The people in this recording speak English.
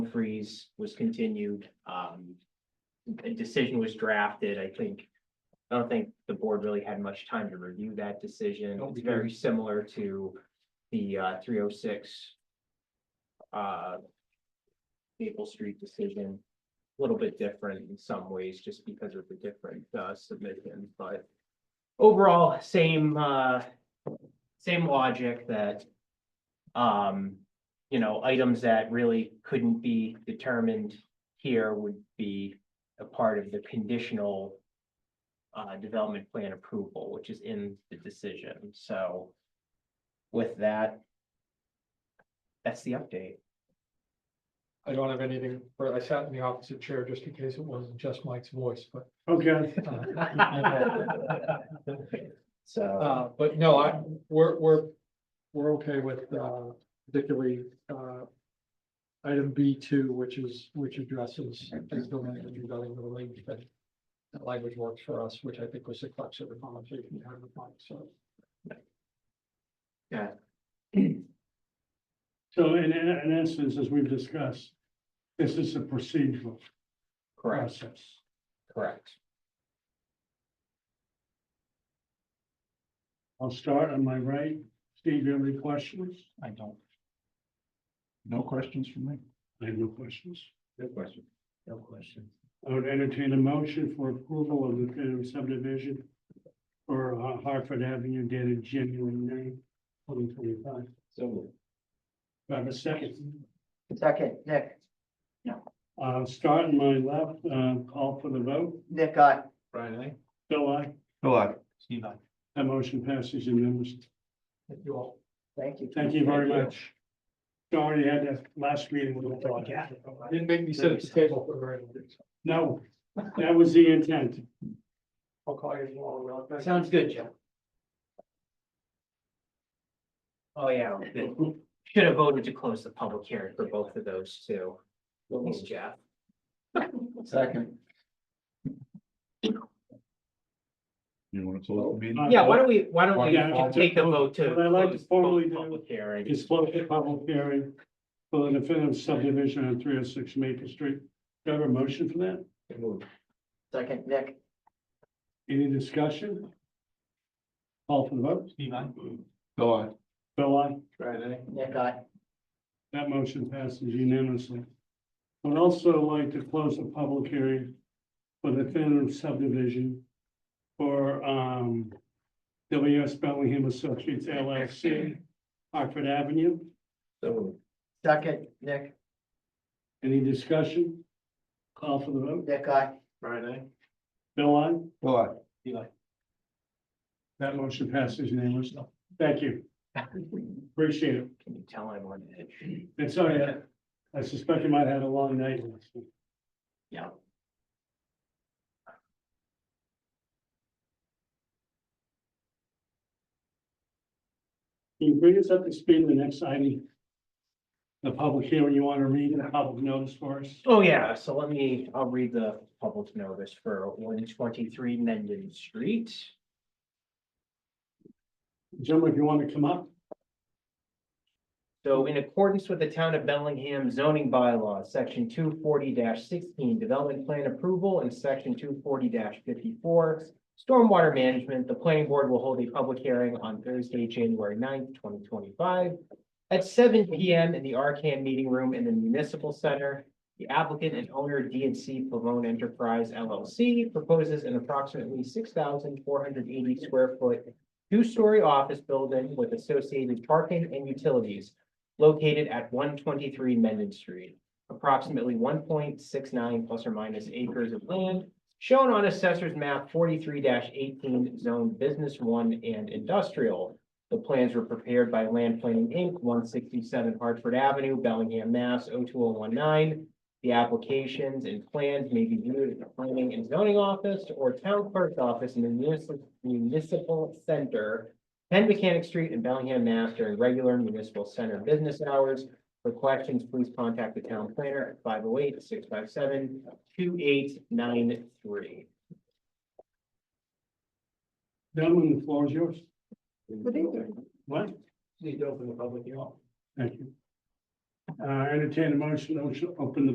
freeze was continued. Um, a decision was drafted, I think. I don't think the board really had much time to review that decision. No, we It's didn't. very similar to the uh three oh six. Uh. Maple Street decision, a little bit different in some ways, just because of the different uh submissions, but. Overall, same uh, same logic that. Um, you know, items that really couldn't be determined here would be a part of the conditional uh, development plan approval, which is in the decision, so with that, that's the update. I don't have anything, but I sat in the opposite chair just in case it wasn't just Mike's voice, but. Okay. uh, So, Uh, but no, I, we're, we're, we're okay with, uh, particularly, uh. Item B two, which is, which addresses, is the language regarding the language, but. That language works for us, which I think was the crux of the conversation we had with Mike, so. So in, in, in essence, as we've discussed, this is a procedural correct, process. correct. I'll start on my right. Steve, you have any questions? I don't. No questions from me? I have no questions. No question. No question. I would entertain a motion for approval of the definitive subdivision for uh, Hartford Avenue dated January 9, twenty twenty-five. So. Do I have a second? Second, Nick, Uh, start on my left, uh, call for the vote. Nick, I, Brian, I. Bill, I, Hello. Steve, I. that motion passes unanimously. Thank you all. thank you. Thank you very much. Sorry, I had that last meeting with the dog. Didn't make me sit at the table for very long. No, that was the intent. I'll call you tomorrow. real quick. Sounds good, Joe. Oh, yeah, the- should have voted to close the public hearing for both of those two. Thanks, Jeff. Second. You want to close the meeting? Yeah, why don't we, why don't Yeah, we take a vote to. what I'd like to close formally both do Public hearing. It's closed the public hearing for the definitive subdivision on three oh six Maple Street. Do I have a motion for that? Second, Nick, Any discussion? Call for the vote. Steve, I. Go on. Bill, I, Brian, I. Nick, I, that motion passes unanimously. I Would also like to close the public hearing for the definitive subdivision for, um, W S Bellingham Associates LLC, Hartford Avenue. So. second, Nick, Any discussion? Call for the vote. Nick, I, Brian, I. Bill, I? Go on. That motion passes unanimously. Thank you. Appreciate it. Can you tell I'm on edge? And sorry, I- I suspect you might have had a long night. last night. Yeah. Can you bring us up to speed on the next item? The public hearing you want to read and the public notice for us? Oh, yeah, so let me, I'll read the public notice for one twenty-three Mendon Street. Gentlemen, if you want to come up, So in accordance with the town of Bellingham zoning bylaws, section two forty sixteen, development plan approval, and section two forty fifty-four, stormwater management, the planning board will hold a public hearing on Thursday, January 9th, twenty twenty-five, at seven P M in the Arcan Meeting Room in the Municipal Center. The applicant and owner D and C Pavone Enterprise LLC proposes an approximately six thousand four hundred eighty square foot two-story office building with associated parking and utilities located at one twenty-three Mendon Street. Approximately one point six nine plus or minus acres of land shown on assessor's map forty-three eighteen zone business one and industrial. The plans were prepared by Land Planning Inc., one sixty-seven Hartford Avenue, Bellingham, Mass. 02019. The applications and plans may be viewed at the planning and zoning office or town clerk's office in the municipal, municipal center. Ten Mechanic Street in Bellingham, Mass. during regular municipal center business hours. For questions, please contact the town planner at 508-657-2893. gentlemen, the floor is yours. Good evening. What? Need to open the public hearing. Thank you. Uh, entertain a motion, to open the